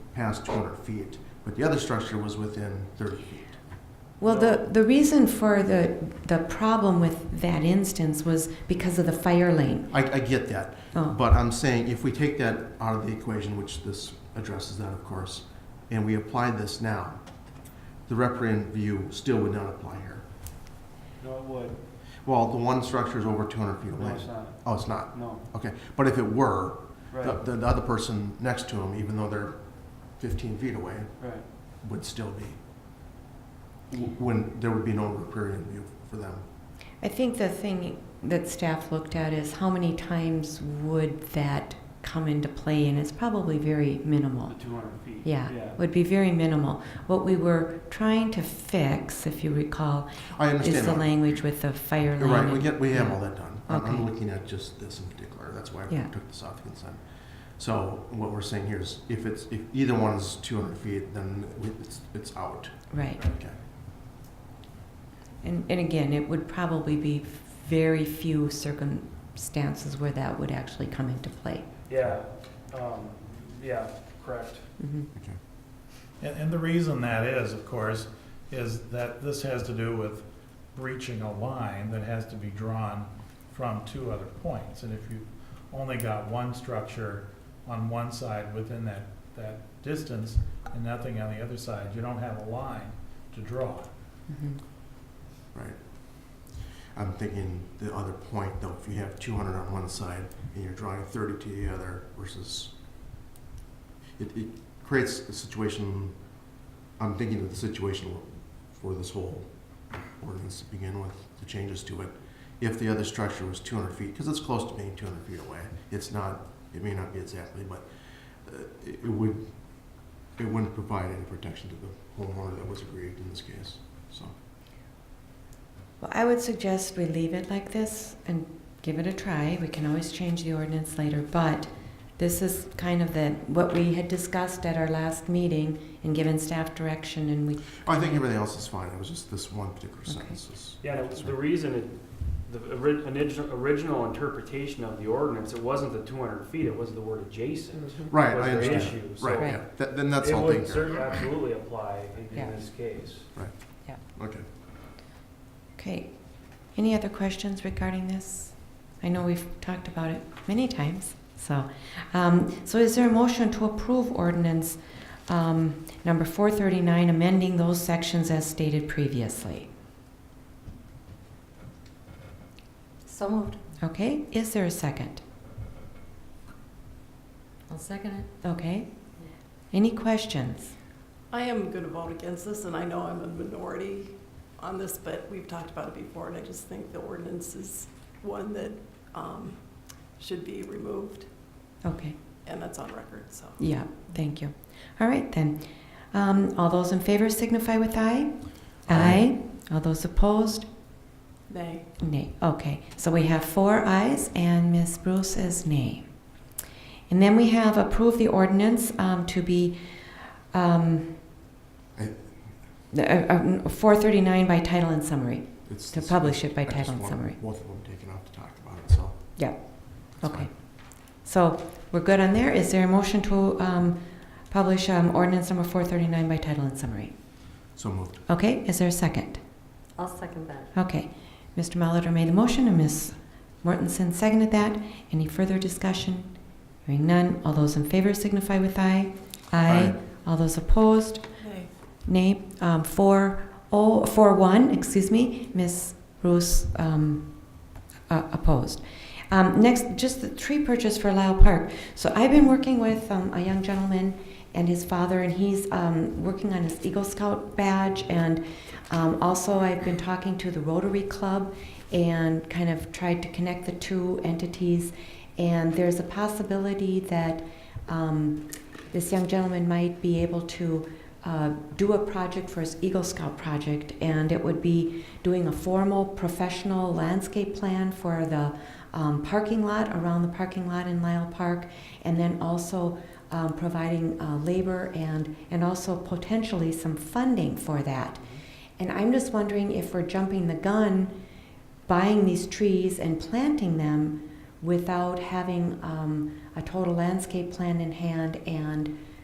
past two hundred feet, but the other structure was within thirty feet. Well, the, the reason for the, the problem with that instance was because of the fire lane. I, I get that, Oh. but I'm saying if we take that out of the equation, which this addresses that, of course, and we apply this now, the reprint view still would not apply here. No, it would. Well, the one structure is over two hundred feet No, away. it's not. Oh, it's not, No, okay, but if it were, the, right, the the other person next to him, even though they're fifteen feet away, right. would still be. w- When there would be no riparian view for them. I think the thing that staff looked at is how many times would that come into play, and it's probably very The minimal. two hundred feet. Yeah, Yeah. would be very minimal. What we were trying to fix, if you recall, I understand. is the that. language with the fire You're lane. right, we get, we have all that done. I'm- I'm Okay. looking at just this in particular, that's why I Yeah. took this off the consent. So what we're saying here is if it's, if either one is two hundred feet, then we- it's, it's out. Right. Okay. And, and again, it would probably be very few circumstances where that would actually come into play. Yeah, um, yeah, correct. Mhm. And, and the reason that is, of course, is that this has to do with breaching a line that has to be drawn from two other points. And if you've only got one structure on one side within that, that distance and nothing on the other side, you don't have a line to draw. Mhm. Right. I'm thinking the other point though, if you have two hundred on one side and you're drawing thirty to the other versus, it, it creates a situation, I'm thinking of the situation for this whole ordinance to begin with, the changes to it. If the other structure was two hundred feet, because it's close to being two hundred feet away, it's not, it may not be exactly, but uh, it it would, it wouldn't provide any protection to the homeowner that was aggrieved in this case, so. Well, I would suggest we leave it like this and give it a try. We can always change the ordinance later, but this is kind of the, what we had discussed at our last meeting and given staff direction and we, I think everything else is fine, it was just this one particular sentence is. Yeah, the- the reason, it- the ori- initial- original interpretation of the ordinance, it wasn't the 200 feet, it was the word adjacent. Right, I Was the understand, issue, so right, Mm-hmm. Right. yeah, Th- then that's it all would taken care certainly absolutely apply in- Yeah. in this case. of. okay. okay. Any other questions regarding this? I know we've talked about it many times, so. Um, so is there a motion to approve ordinance, um, number four thirty-nine, amending those sections as stated previously? So moved. Okay, is there a second? I'll second it. Okay. Any questions? I am going to vote against this, and I know I'm a minority on this, but we've talked about it before, and I just think the ordinance is one that um, should be removed, Okay, and that's on record, so. yeah, thank you. All right, then. Um, all those in favor signify with aye. Aye. All those opposed? Nay. Nay. Okay, so we have four ayes and Ms. Bruce is nay. And then we have approve the ordinance um, to be um, I- the, uh, uh, 439 by title and summary. It's- To it's- publish it by I just title and want summary. Both of them taken off to talk about it, so. Yeah. That's Okay. fine. So we're good on there. Is there a motion to um, publish um, ordinance number 439 by title and summary? So moved. Okay, is there a second? I'll second that. Okay, Mr. Malater made the motion and Ms. Mortensen seconded that. Any further discussion? Hearing none, all those in favor signify with aye. Aye. All those opposed, Nay. nay. Um, Four, oh, four, one, excuse me, Ms. Bruce um, uh, opposed. Um, Next, just the tree purchase for Lyle Park. So I've been working with um, a young gentleman and his father, and he's um, working on his Eagle Scout badge. And um, also, I've been talking to the Rotary Club and kind of tried to connect the two entities. And there's a possibility that um, this young gentleman might be able to uh, do a project for his Eagle Scout project, and it would be doing a formal professional landscape plan for the um, parking lot around the parking lot in Lyle Park, and then also um, providing uh, labor and and also potentially some funding for that. And I'm just wondering if we're jumping the gun, buying these trees and planting them without having um, a total landscape plan in hand and